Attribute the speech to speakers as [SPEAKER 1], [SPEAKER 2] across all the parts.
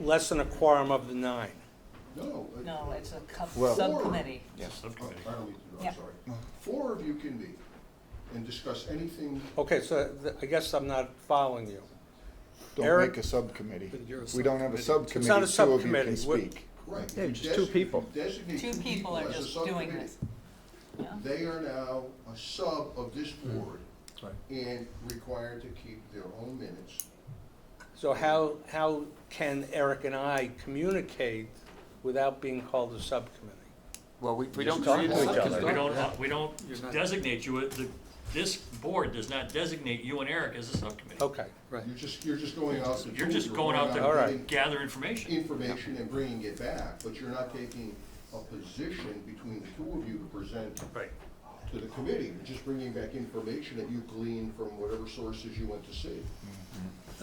[SPEAKER 1] less than a quorum of the nine.
[SPEAKER 2] No. uh,
[SPEAKER 3] No, it's a co-
[SPEAKER 4] Well-
[SPEAKER 3] subcommittee.
[SPEAKER 4] Yes.
[SPEAKER 2] Oh,
[SPEAKER 5] Subcommittee.
[SPEAKER 2] I don't mean to,
[SPEAKER 3] Yeah.
[SPEAKER 2] I'm sorry. Four of you can meet and discuss anything,
[SPEAKER 1] Okay, so th- I guess I'm not following you.
[SPEAKER 4] Don't
[SPEAKER 1] Eric?
[SPEAKER 4] make a subcommittee.
[SPEAKER 6] But you're a
[SPEAKER 4] We don't have a
[SPEAKER 1] It's not a
[SPEAKER 4] subcommittee, two of you
[SPEAKER 1] subcommittee.
[SPEAKER 4] can
[SPEAKER 1] We're-
[SPEAKER 4] speak.
[SPEAKER 2] right?
[SPEAKER 4] Yeah,
[SPEAKER 2] you
[SPEAKER 4] just two
[SPEAKER 2] desi-
[SPEAKER 4] people.
[SPEAKER 2] you Designate
[SPEAKER 3] Two people are
[SPEAKER 2] as a
[SPEAKER 3] just doing
[SPEAKER 2] subcommittee.
[SPEAKER 3] this. Uh-huh. Yeah.
[SPEAKER 2] They are now a sub of this
[SPEAKER 4] Mm.
[SPEAKER 2] board
[SPEAKER 6] Right.
[SPEAKER 2] and required to keep their own minutes.
[SPEAKER 1] So how, how can Eric and I communicate without being called a subcommittee?
[SPEAKER 7] Well, we, we
[SPEAKER 2] Just
[SPEAKER 7] don't.
[SPEAKER 2] talk to
[SPEAKER 7] create a
[SPEAKER 2] each other.
[SPEAKER 7] subcommittee.
[SPEAKER 5] We don't, we
[SPEAKER 6] You're
[SPEAKER 5] don't
[SPEAKER 6] not-
[SPEAKER 5] designate you, uh, the, this board does not designate you and Eric as a subcommittee.
[SPEAKER 6] Oh.
[SPEAKER 1] Okay,
[SPEAKER 6] Right.
[SPEAKER 2] You're just, you're just going out. to
[SPEAKER 5] You're
[SPEAKER 2] do-
[SPEAKER 5] just going out
[SPEAKER 1] All
[SPEAKER 5] there
[SPEAKER 1] right.
[SPEAKER 5] to gather information.
[SPEAKER 2] information and bringing it back, but you're not taking a position between the two of you to present
[SPEAKER 5] Right.
[SPEAKER 2] to the committee. You're just bringing back information that you gleaned from whatever sources you went to see.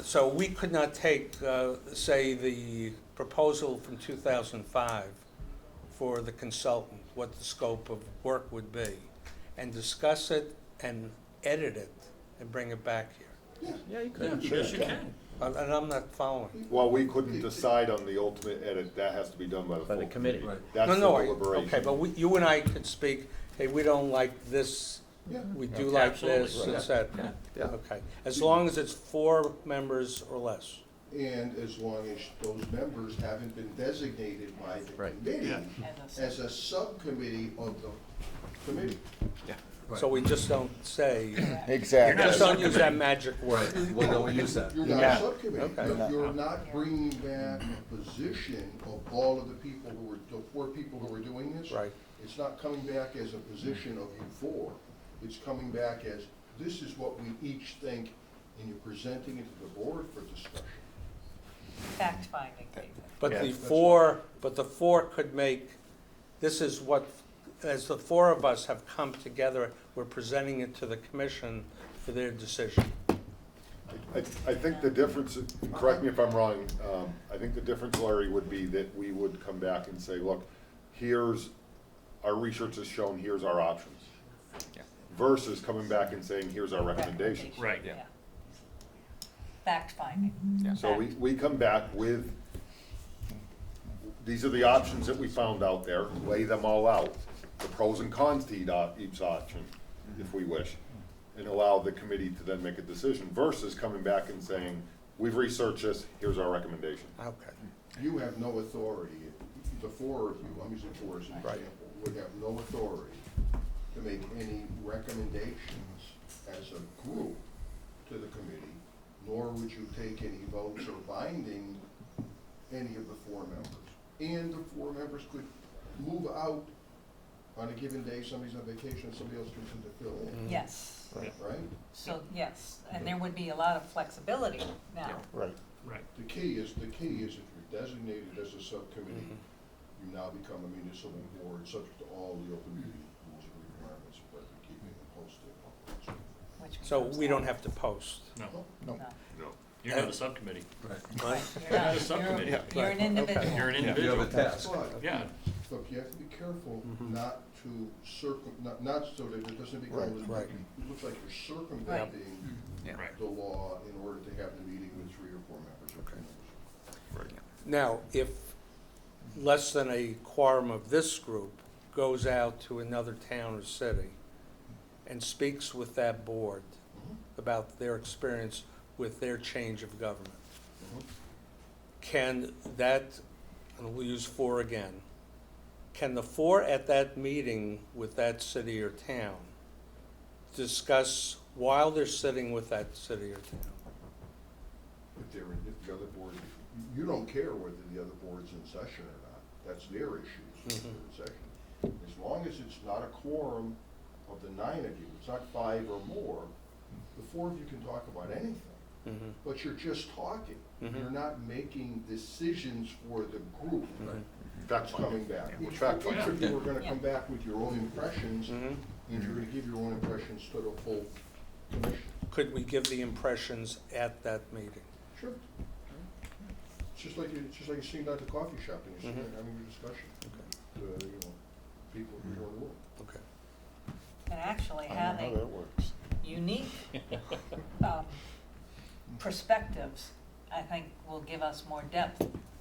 [SPEAKER 1] so we could not take, uh, say, the proposal from 2005 for the consultant, what the scope of work would be, and discuss it and edit it and bring it back here.
[SPEAKER 4] Yeah, you
[SPEAKER 5] Yeah, yes, you can.
[SPEAKER 1] And and I'm not following.
[SPEAKER 8] Well, we couldn't decide on the ultimate edit, that has to be done by the
[SPEAKER 4] By the
[SPEAKER 8] full
[SPEAKER 4] committee.
[SPEAKER 8] committee.
[SPEAKER 6] Right.
[SPEAKER 8] That's
[SPEAKER 1] No,
[SPEAKER 8] the
[SPEAKER 1] no, I-
[SPEAKER 8] deliberation.
[SPEAKER 1] Okay, but we- you and I could speak, hey, we don't like this,
[SPEAKER 2] Yeah.
[SPEAKER 1] we do like this,
[SPEAKER 5] Absolutely.
[SPEAKER 1] et cetera. Okay, as long as it's four members or less.
[SPEAKER 2] And as long as those members haven't been designated by the
[SPEAKER 4] Right.
[SPEAKER 2] committee
[SPEAKER 5] Yeah.
[SPEAKER 3] As a
[SPEAKER 2] as a subcommittee of the committee.
[SPEAKER 1] So we just don't say,
[SPEAKER 4] Exactly.
[SPEAKER 1] just don't use that magic word.
[SPEAKER 6] We don't use that.
[SPEAKER 2] You're
[SPEAKER 4] You're
[SPEAKER 2] not a
[SPEAKER 4] not.
[SPEAKER 2] subcommittee.
[SPEAKER 1] Okay.
[SPEAKER 2] You're- You're not bringing back a position of all of the people who were, the four people who were doing this.
[SPEAKER 1] Right.
[SPEAKER 2] It's not coming back as a position of you four. It's coming back as, this is what we each think, and you're presenting it to the board for discussion.
[SPEAKER 3] fact-finding paper.
[SPEAKER 1] But the
[SPEAKER 8] Yeah.
[SPEAKER 1] four, but the four could make, this is what, as the four of us have come together, we're presenting it to the commission for their decision.
[SPEAKER 8] I, I think the difference, correct me if I'm wrong, um, I think the difference, Larry, would be that we would come back and say, look, here's, our research has shown, here's our options.
[SPEAKER 7] Yeah.
[SPEAKER 8] Versus coming back and saying, here's our recommendations.
[SPEAKER 3] Recommendation,
[SPEAKER 5] Right.
[SPEAKER 3] yeah.
[SPEAKER 7] Yeah.
[SPEAKER 3] Fact-finding.
[SPEAKER 8] So we, we come back with, these are the options that we found out there, lay them all out, the pros and cons to each, op- each option, if we wish, and allow the committee to then make a decision versus coming back and saying, we've researched this, here's our recommendation.
[SPEAKER 1] Okay.
[SPEAKER 2] You have no authority, the four of you, I'm using four as an
[SPEAKER 1] Right.
[SPEAKER 2] example, would have no authority to make any recommendations as a group to the committee, nor would you take any votes or binding any of the four members. And the four members could move out on a given day, somebody's on vacation, somebody else comes in to fill in,
[SPEAKER 3] Yes,
[SPEAKER 2] right?
[SPEAKER 3] so, yes, and there would be a lot of flexibility now.
[SPEAKER 4] Right.
[SPEAKER 5] Right.
[SPEAKER 2] The key is, the key is if you're designated as a subcommittee, you now become a municipal board, subject to all the open meeting rules and requirements, but you're keeping it posted.
[SPEAKER 3] which
[SPEAKER 1] So
[SPEAKER 3] becomes
[SPEAKER 1] we don't
[SPEAKER 3] law.
[SPEAKER 1] have to post.
[SPEAKER 5] No,
[SPEAKER 3] No.
[SPEAKER 5] no. You're
[SPEAKER 6] uh,
[SPEAKER 5] not a subcommittee.
[SPEAKER 3] Right, you're
[SPEAKER 5] You're not a
[SPEAKER 3] not.
[SPEAKER 5] subcommittee.
[SPEAKER 3] You're- You're an individual.
[SPEAKER 5] You're an
[SPEAKER 6] You have
[SPEAKER 5] individual.
[SPEAKER 6] a task.
[SPEAKER 2] But,
[SPEAKER 5] Yeah.
[SPEAKER 2] look, you have to be careful not to circum, not, not so that it doesn't
[SPEAKER 4] Right,
[SPEAKER 2] become,
[SPEAKER 1] right.
[SPEAKER 2] it looks like you're circumventing
[SPEAKER 5] Right.
[SPEAKER 2] the law in order to have the meeting with three or four members or two members.
[SPEAKER 1] Now, if less than a quorum of this group goes out to another town or city and speaks with that board
[SPEAKER 2] Mm-hmm.
[SPEAKER 1] about their experience with their change of government, can that, and we'll use four again, can the four at that meeting with that city or town discuss while they're sitting with that city or town?
[SPEAKER 2] If they're, in- if the other board, you don't care whether the other board's in session or not, that's their issue, if they're in session. As long as it's not a quorum of the nine of you, it's not five or more, the four of you can talk about anything.
[SPEAKER 1] Mhm.
[SPEAKER 2] But you're just talking, you're
[SPEAKER 1] Mhm.
[SPEAKER 2] not making decisions for the group
[SPEAKER 8] Fact
[SPEAKER 2] that's coming
[SPEAKER 8] finding.
[SPEAKER 2] back.
[SPEAKER 8] Yeah.
[SPEAKER 2] Each
[SPEAKER 8] Fact
[SPEAKER 2] each of you are gonna
[SPEAKER 3] Yeah.
[SPEAKER 2] come back with your own impressions, and
[SPEAKER 1] Mhm.
[SPEAKER 2] you're gonna give your own impressions to the whole commission.
[SPEAKER 1] Could we give the impressions at that meeting?
[SPEAKER 2] Sure. It's just like, you- it's just like you see down at the coffee shop and you sit there and having a discussion. Uh, you know, people who are rural.
[SPEAKER 1] Okay.
[SPEAKER 3] And actually
[SPEAKER 8] I don't know how
[SPEAKER 3] having
[SPEAKER 8] that works.
[SPEAKER 3] unique um, perspectives, I think will give us more depth